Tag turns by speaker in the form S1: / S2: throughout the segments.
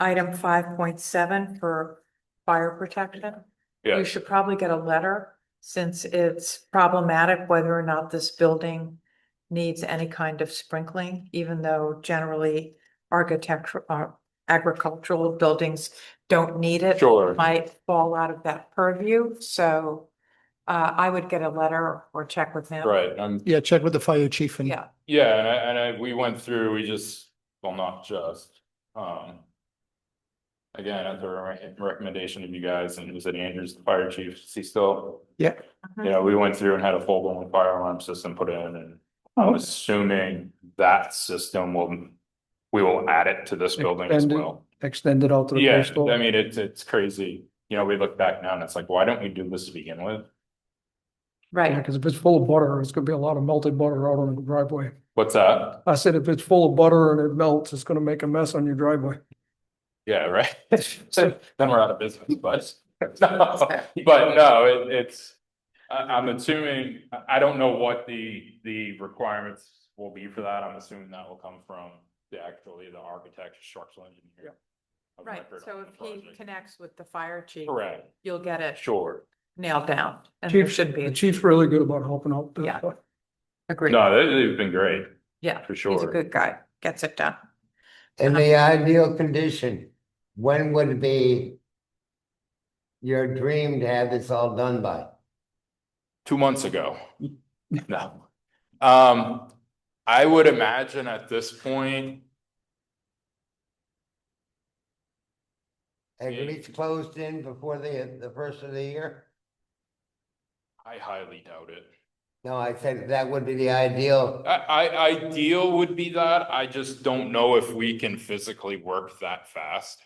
S1: item five point seven for fire protection.
S2: Yeah.
S1: You should probably get a letter since it's problematic whether or not this building needs any kind of sprinkling, even though generally architectural, uh, agricultural buildings don't need it.
S2: Sure.
S1: Might fall out of that purview, so uh, I would get a letter or check with them.
S2: Right, and,
S3: Yeah, check with the fire chief and
S1: Yeah,
S2: yeah, and I, and I, we went through, we just, well, not just, um. Again, at the re- recommendation of you guys, and it was at Andrews, the fire chief, is he still?
S3: Yeah.
S2: You know, we went through and had a full blown fire alarm system put in, and I'm
S3: Oh,
S2: assuming that system will, we will add it to this building as
S3: Extend it.
S2: well.
S3: extend it out to the
S2: Yeah,
S3: coastal.
S2: I mean, it's, it's crazy, you know, we look back now and it's like, why don't we do this to begin with?
S3: Yeah,
S1: right.
S3: because if it's full of butter, it's gonna be a lot of melted butter out on the driveway.
S2: What's that?
S3: I said, if it's full of butter and it melts, it's gonna make a mess on your driveway.
S2: Yeah, right. So Then we're out of business, but, no, but no, it, it's, I, I'm assuming, I, I don't know what the, the requirements will be for that. I'm assuming that will come from the actually the architect, structural engineer. of
S1: Right,
S2: record
S1: so
S2: on the
S1: if he
S2: project.
S1: connects with the fire chief,
S2: Correct,
S1: you'll get it
S2: sure.
S1: nailed down and there
S3: Chief
S1: should be,
S3: The chief's really good about helping out. the-
S1: Yeah. agreed,
S2: No, they, they've been great,
S1: yeah.
S2: for
S1: He's a
S2: sure.
S1: good guy, gets it done.
S4: In the ideal condition, when would be your dream to have this all done by?
S2: Two months ago. No. Um, I would imagine at this point,
S4: Have
S2: Yeah.
S4: least closed in before the, the first of the year?
S2: I highly doubt it.
S4: No, I said that would be the ideal.
S2: I, I, ideal would be that, I just don't know if we can physically work that fast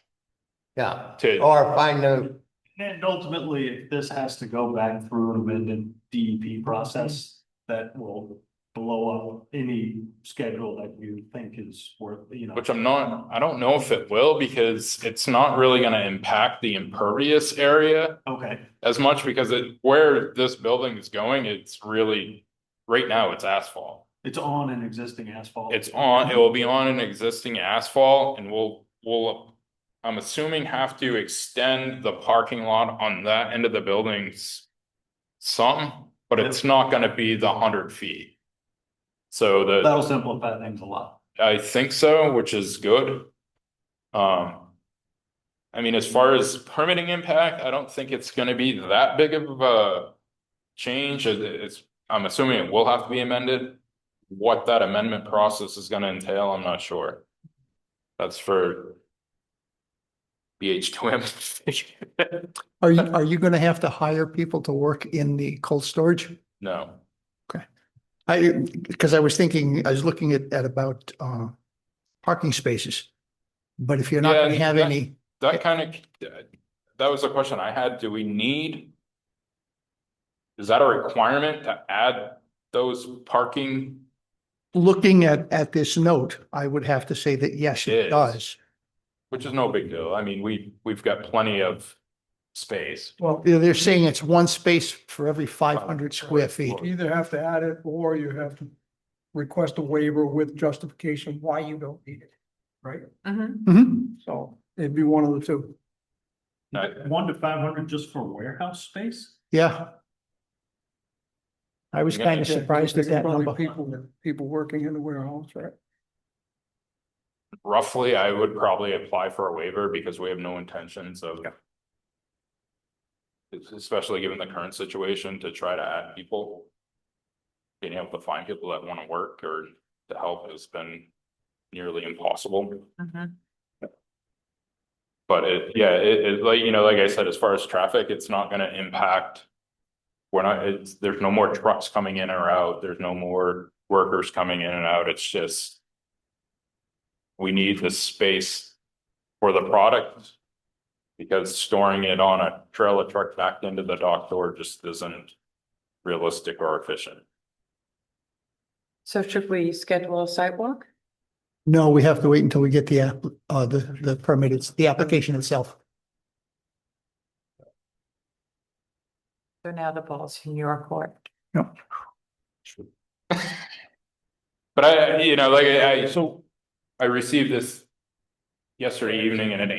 S4: Yeah,
S2: to,
S4: or find a,
S5: And ultimately, if this has to go back through an amended DEP process, that will blow up any schedule that you think is worth, you know.
S2: which I'm not, I don't know if it will, because it's not really gonna impact the impervious area
S5: Okay,
S2: as much, because it, where this building is going, it's really, right now, it's asphalt.
S5: it's on an existing asphalt.
S2: It's on, it will be on an existing asphalt, and we'll, we'll, I'm assuming have to extend the parking lot on that end of the buildings. Some, but it's not gonna be the hundred feet. So the,
S5: That'll simplify things a lot.
S2: I think so, which is good. Um. I mean, as far as permitting impact, I don't think it's gonna be that big of a change, It- it's, I'm assuming it will have to be amended. What that amendment process is gonna entail, I'm not sure. That's for. BH two M.
S3: Are you, are you gonna have to hire people to work in the cold storage?
S2: No,
S3: I, because I was thinking, I was looking at, at about, uh, parking spaces. But if you're not
S2: Yeah,
S3: gonna have
S2: that-
S3: any,
S2: that kind of, that was a question I had, do we need? Is that a requirement to add those parking?
S3: looking at, at this note, I would have to say that yes,
S2: Yes.
S3: it does.
S2: Which is no big deal. I mean, we, we've got plenty of space.
S3: Well, they're they're saying it's one space for every five hundred square feet.
S2: Well,
S6: either have to add it or you have to request a waiver with justification why you don't need it, right?
S1: Mhm.
S3: Mhm.
S6: So it'd be one of the two.
S2: I-
S5: One to five hundred just for warehouse space?
S3: Yeah. I was
S2: Yeah.
S3: kind of surprised at
S6: There's
S3: that
S6: probably
S3: number.
S6: People, people working in the warehouse, right?
S2: Roughly, I would probably apply for a waiver because we have no intentions of. Es- Especially given the current situation to try to add people. Being able to find people that want to work or to help has been nearly impossible.
S1: Mhm.
S2: But it, yeah, it, it, like, you know, like I said, as far as traffic, it's not gonna impact. We're not, it's, there's no more trucks coming in or out, there's no more workers coming in and out, it's just. We need the space for the product. Because storing it on a trailer truck backed into the dock door just isn't realistic or efficient.
S1: So should we schedule a sidewalk?
S3: No, we have to wait until we get the, app- uh, the, the permit, it's the application itself.
S1: So now the ball's in your court.
S2: But I, you know, like I, I-
S6: So
S2: I received this yesterday evening in an